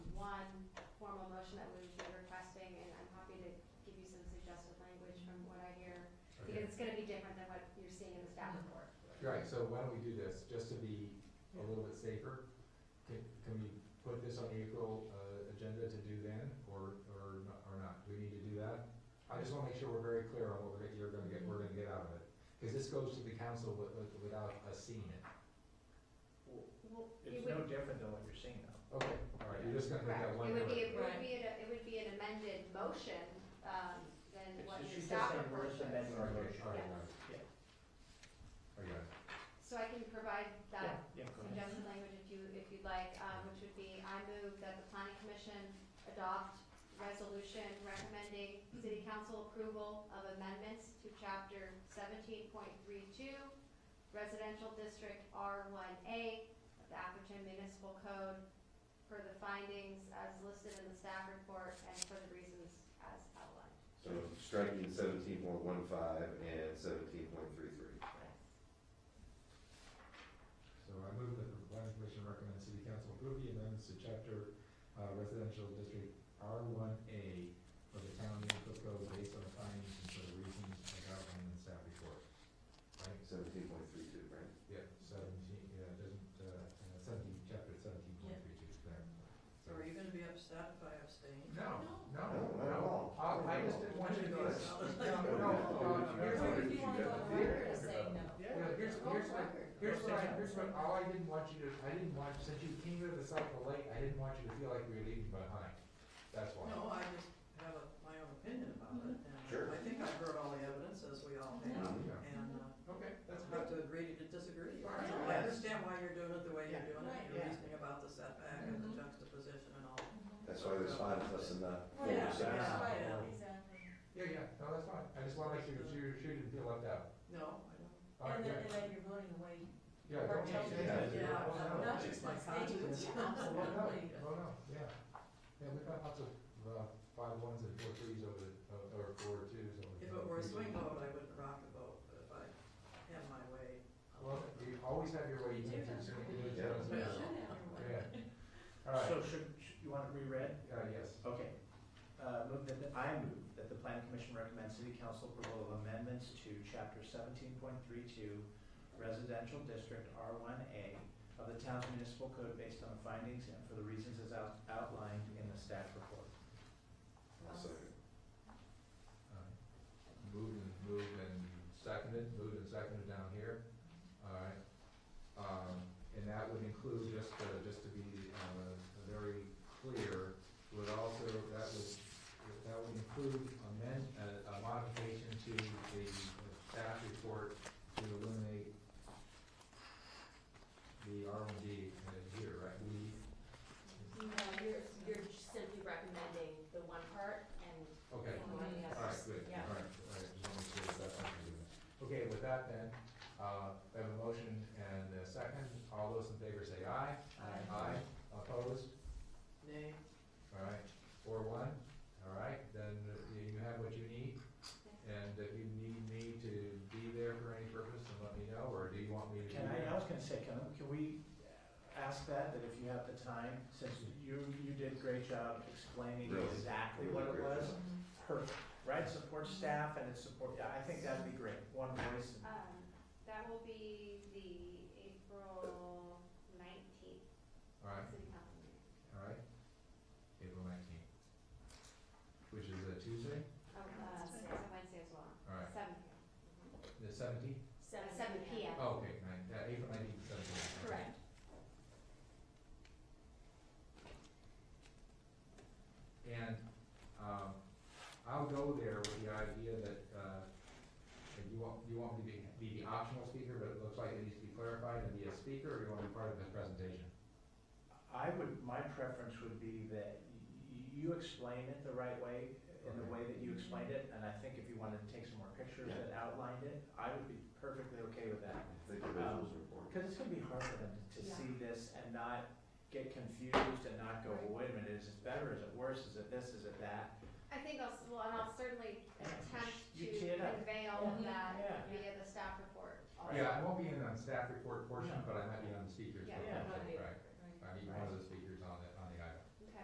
Right, so why don't we do this, just to be a little bit safer? Can, can we put this on the April, uh, agenda to do then, or, or, no- or not? Do we need to do that? I just wanna make sure we're very clear on what we're, you're gonna get, we're gonna get out of it. Cause this goes to the council wi- wi- without us seeing it. Well, It It's would- no different than what you're seeing though. Okay. All right, you're just gonna make that one. It would be, it word. would be, an- it would be an amended motion, um, than It's what just- your she's just staff saying we're proposed. amending our Okay, motion. all right, all right. Yeah. I got it. So I can provide that Yeah, go ahead. suggested language if you, if you'd like, um, which would be, I move that the planning commission adopt resolution recommending city council approval of amendments to chapter seventeen point three two, residential district R one A of the Atherton Municipal Code for the findings as listed in the staff report and for the reasons as outlined. So striking seventeen point one five and seventeen point three three. So I move that the planning commission recommends city council approve the amendments to chapter, uh, residential district R one A of the town municipal code based on the findings and for the reasons as outlined in the staff report. Right, Seventeen point three two, right? yeah, seventeen, yeah, doesn't, uh, uh, seventeen, chapter seventeen point three two, there. So are you gonna be upset if I abstain? No, no, No, not no, at all. Uh, I just didn't want you to go, Yes. no, no, no, here's what If you wanna go on record as saying no. Yeah, here's, here's what, here's what I, here's what, all I didn't want you to, I didn't want, since you came to the cycle late, I didn't want you to feel like we were leaving behind. That's why. No, I just have a- my own opinion about it, and Sure. Uh, I think I've heard all the evidence, as we all have, Mhm. Yeah. and, uh, Okay, that's I have good. to agree to disagree. Fine. So I understand why you're doing it the way you're Yeah. doing it, Yeah. your reasoning about the setback and the juxtaposition and all. That's why there's five of us and not four Yeah, or six. yeah, I am. Exactly. Yeah, yeah, no, that's fine. I just wanna make sure that you, you didn't feel left out. No, I don't. All right, And then, yeah, and then you're voting away. yeah, don't Yeah. change that. Yeah. Oh, no. Not Oh, just my conscience. conscience. no, Absolutely. oh, no, yeah. Yeah, we've got lots of, uh, five ones and four threes over the, uh, or four twos over. the- If it were a swing vote, I wouldn't rock the vote, but if I had my way. I'll- Well, you always have your way, you can't just. Yeah. Yeah. All right, So should, should- you want it reread? uh, yes. Okay. Uh, move that, the- I move that the planning commission recommends city council approval of amendments to chapter seventeen point three two residential district R one A of the town's municipal code based on the findings and for the reasons as out- outlined in the staff report. I'll second. Uh, Moved and, moved and seconded, moved and seconded down here, alright. Um, and that would include, just to, just to be, uh, very clear, would also, that would, that would include amend, uh, a, a modification to the staff report to eliminate the R and D uh, here, right, we, No, you're, you're simply recommending the one part and okay. ignoring the All right, others. good, Yeah. all right, all right, just wanna make sure that's not gonna be there. Okay, with that then, uh, I have a motion and a second, all those in favor say aye. Aye. Aye, opposed, Nay. all right, four one, all right, then you you have what you need. And if you need me to be there for any purpose, then let me know, or do you want me to? be Can I, I there? was gonna say, can, can we ask that, that if you have the time, since you, you did a great job explaining Really, exactly really what it great was. job. Perfect, right, support staff and it's support, yeah, I think that'd be great, one voice. Um, that will be the April nineteenth All right, city council meeting. all right, April nineteenth, which is a Tuesday, Oh, uh, so it's Wednesday as well, all right, seven, the seventeenth? uh, seven P M. Oh, okay, nine, yeah, April nineteenth, seventeenth. Correct. And, um, I'll go there with the idea that, uh, that you want, you want me to be, be the optional speaker, but it looks like it needs to be clarified and be a speaker, or you want to be part of the presentation? I would, my preference would be that y- you explain it the right way, in the Okay. way that you explained it, and I think if you wanted to take some more pictures that outlined it, I would be perfectly okay with that. I think the visuals are important. Because it's gonna be hard for them to Yeah. see this and not get confused and not go, wait a minute, is it better, is it worse, is it this, is it that? I think I'll, s- well, and I'll certainly attempt to You teed it up. convey all of that Yeah. via the staff report. also. Yeah, I won't be in on staff report portion, No. but I might be on the speakers. Yeah. report, Yeah. Right, I mean, one of those